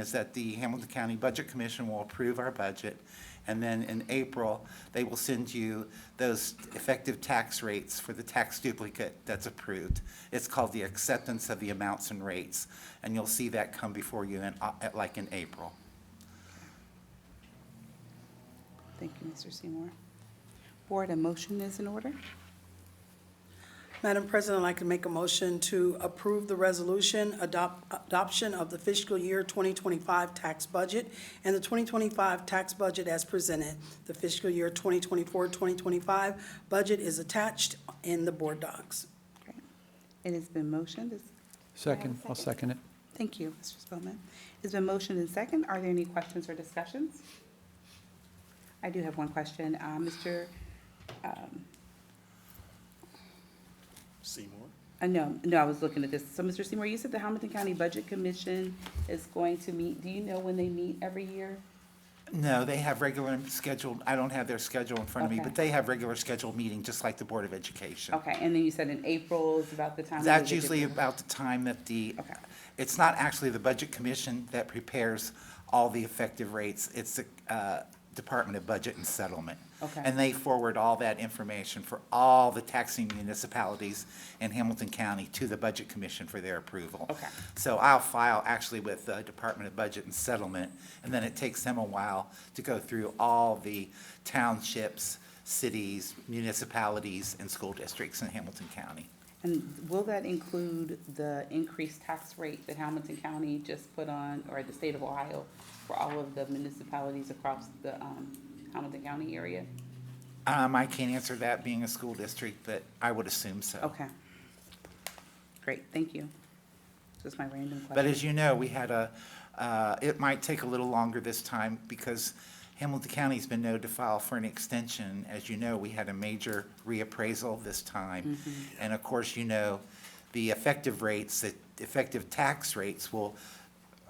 is that the Hamilton County Budget Commission will approve our budget, and then in April, they will send you those effective tax rates for the tax duplicate that's approved. It's called the acceptance of the amounts and rates, and you'll see that come before you in, uh, at- like in April. Thank you, Mr. Seymour. Board, a motion is in order. Madam President, I'd like to make a motion to approve the resolution adopt- adoption of the fiscal year 2025 tax budget and the 2025 tax budget as presented. The fiscal year 2024-2025 budget is attached in the board docs. Okay. It has been motioned. Is- Second, I'll second it. Thank you, Mr. Spelman. It's been motioned and second. Are there any questions or discussions? I do have one question. Uh, Mr., um, Seymour. uh, no, no, I was looking at this. So, Mr. Seymour, you said the Hamilton County Budget Commission is going to meet. Do you know when they meet every year? No, they have regular scheduled, I don't have their schedule in front of me, Okay. but they have regular scheduled meeting, just like the Board of Education. Okay, and then you said in April is about the time. we That's would get usually the- about the time that the, Okay. it's not actually the Budget Commission that prepares all the effective rates. It's the uh, Department of Budget and Settlement. Okay. And they forward all that information for all the taxing municipalities in Hamilton County to the Budget Commission for their approval. Okay. So I'll file actually with the Department of Budget and Settlement, and then it takes them a while to go through all the townships, cities, municipalities, and school districts in Hamilton County. And will that include the increased tax rate that Hamilton County just put on, or the state of Ohio, for all of the municipalities across the um, Hamilton County area? Um, I can't answer that being a school district, but I would assume so. Okay. Great, thank you. Just my random But question. as you know, we had a, uh, it might take a little longer this time because Hamilton County's been known to file for an extension. As you know, we had a major reappraisal this time. And of course, you know, the effective rates, the effective tax rates will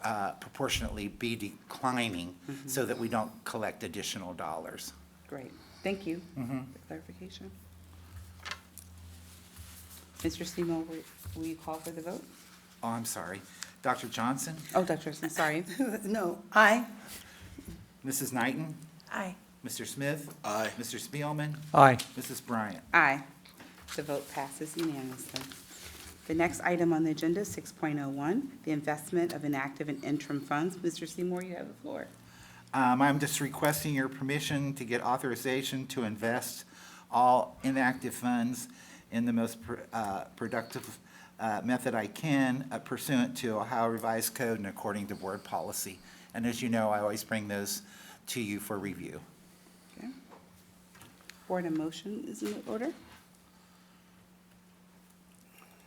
uh, proportionately be declining so that we don't collect additional dollars. Great, thank you for clarification. Mr. Seymour, will- will you call for the vote? Oh, I'm sorry. Dr. Johnson, Oh, Dr. Smith, sorry. No, aye? Mrs. Knighton, Aye. Mr. Smith? Aye. Mr. Spielman? Aye. Mrs. Bryant? Aye. The vote passes unanimously. The next item on the agenda, 6.01, the investment of inactive and interim funds. Mr. Seymour, you have the floor. Um, I'm just requesting your permission to get authorization to invest all inactive funds in the most pr- uh, productive uh, method I can uh, pursuant to Ohio Revised Code and according to board policy. And as you know, I always bring those to you for review. Okay. Board, a motion is in order?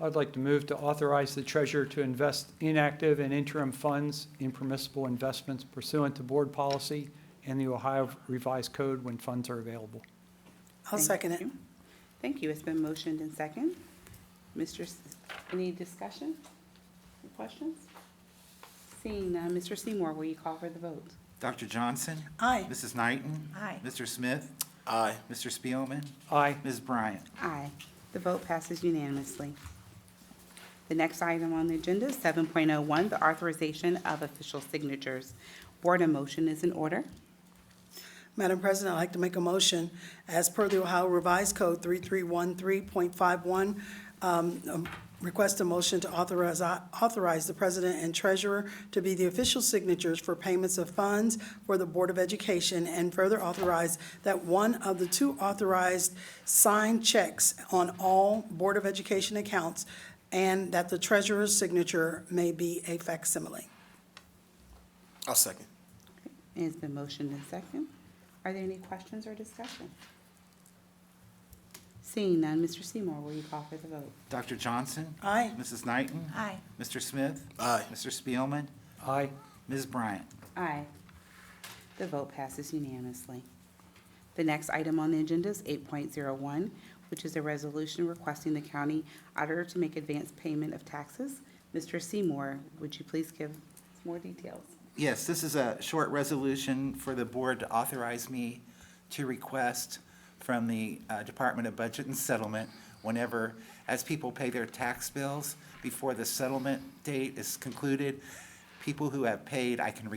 I'd like to move to authorize the treasurer to invest inactive and interim funds in permissible investments pursuant to board policy and the Ohio Revised Code when funds are available. I'll Thank second it. you. Thank you. It's been motioned and second. Mr., S- any discussion? Questions? Seeing none, Mr. Seymour, will you call for the vote? Dr. Johnson? Aye. Mrs. Knighton? Aye. Mr. Smith? Aye. Mr. Spielman? Aye. Ms. Bryant? Aye. The vote passes unanimously. The next item on the agenda, 7.01, the authorization of official signatures. Board, a motion is in order. Madam President, I'd like to make a motion, as per the Ohio Revised Code 3313.51, um, um, request a motion to authorize, authorize the president and treasurer to be the official signatures for payments of funds for the Board of Education, and further authorize that one of the two authorized signed checks on all Board of Education accounts, and that the treasurer's signature may be a facsimile. I'll second. It has been motioned and second. Are there any questions or discussion? Seeing none, Mr. Seymour, will you call for the vote? Dr. Johnson? Aye. Mrs. Knighton? Aye. Mr. Smith? Aye. Mr. Spielman? Aye. Ms. Bryant? Aye. The vote passes unanimously. The next item on the agenda is 8.01, which is a resolution requesting the county auditor to make advance payment of taxes. Mr. Seymour, would you please give more details? Yes, this is a short resolution for the board to authorize me to request from the uh, Department of Budget and Settlement whenever, as people pay their tax bills, before the settlement date is concluded, people who have paid, I can